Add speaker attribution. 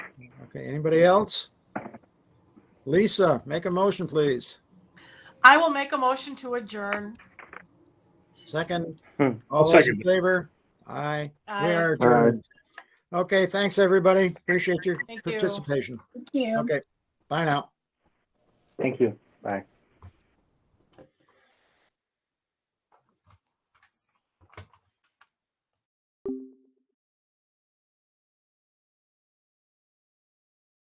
Speaker 1: Okay, anybody else? Lisa, make a motion, please.
Speaker 2: I will make a motion to adjourn.
Speaker 1: Second,
Speaker 3: Hmm,
Speaker 1: all those in
Speaker 3: second.
Speaker 1: favor? Aye, we
Speaker 2: Aye.
Speaker 1: are adjourned. Okay, thanks, everybody. Appreciate your
Speaker 2: Thank you.
Speaker 1: participation.
Speaker 4: Thank you.
Speaker 1: Okay, bye now.
Speaker 3: Thank you. Bye.